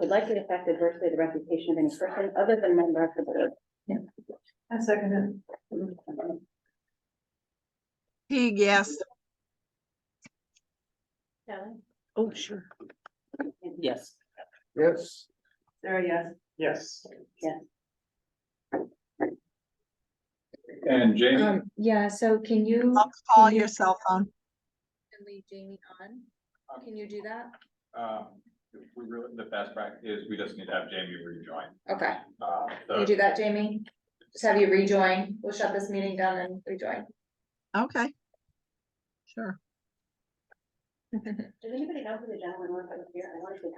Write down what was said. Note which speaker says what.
Speaker 1: would likely affect adversely the reputation of any person other than member of the board.
Speaker 2: I second
Speaker 3: Teague, yes.
Speaker 1: Kelly?
Speaker 3: Oh, sure.
Speaker 4: Yes.
Speaker 5: Yes.
Speaker 2: it. Sarah, yes.
Speaker 5: Yes.
Speaker 1: Yeah.
Speaker 5: And Jamie,
Speaker 6: Um, yeah, so can you,
Speaker 3: I'll call your cell phone.
Speaker 6: can leave Jamie on? Can you do that?
Speaker 5: um, we really, the best practice is we just need to have Jamie rejoin.
Speaker 6: Okay,
Speaker 5: Uh,
Speaker 6: can you
Speaker 5: so-
Speaker 6: do that, Jamie? Just have you rejoin. We'll shut this meeting down and rejoin.
Speaker 3: Okay. Sure.
Speaker 1: Does anybody know who the gentleman was that was here? I honestly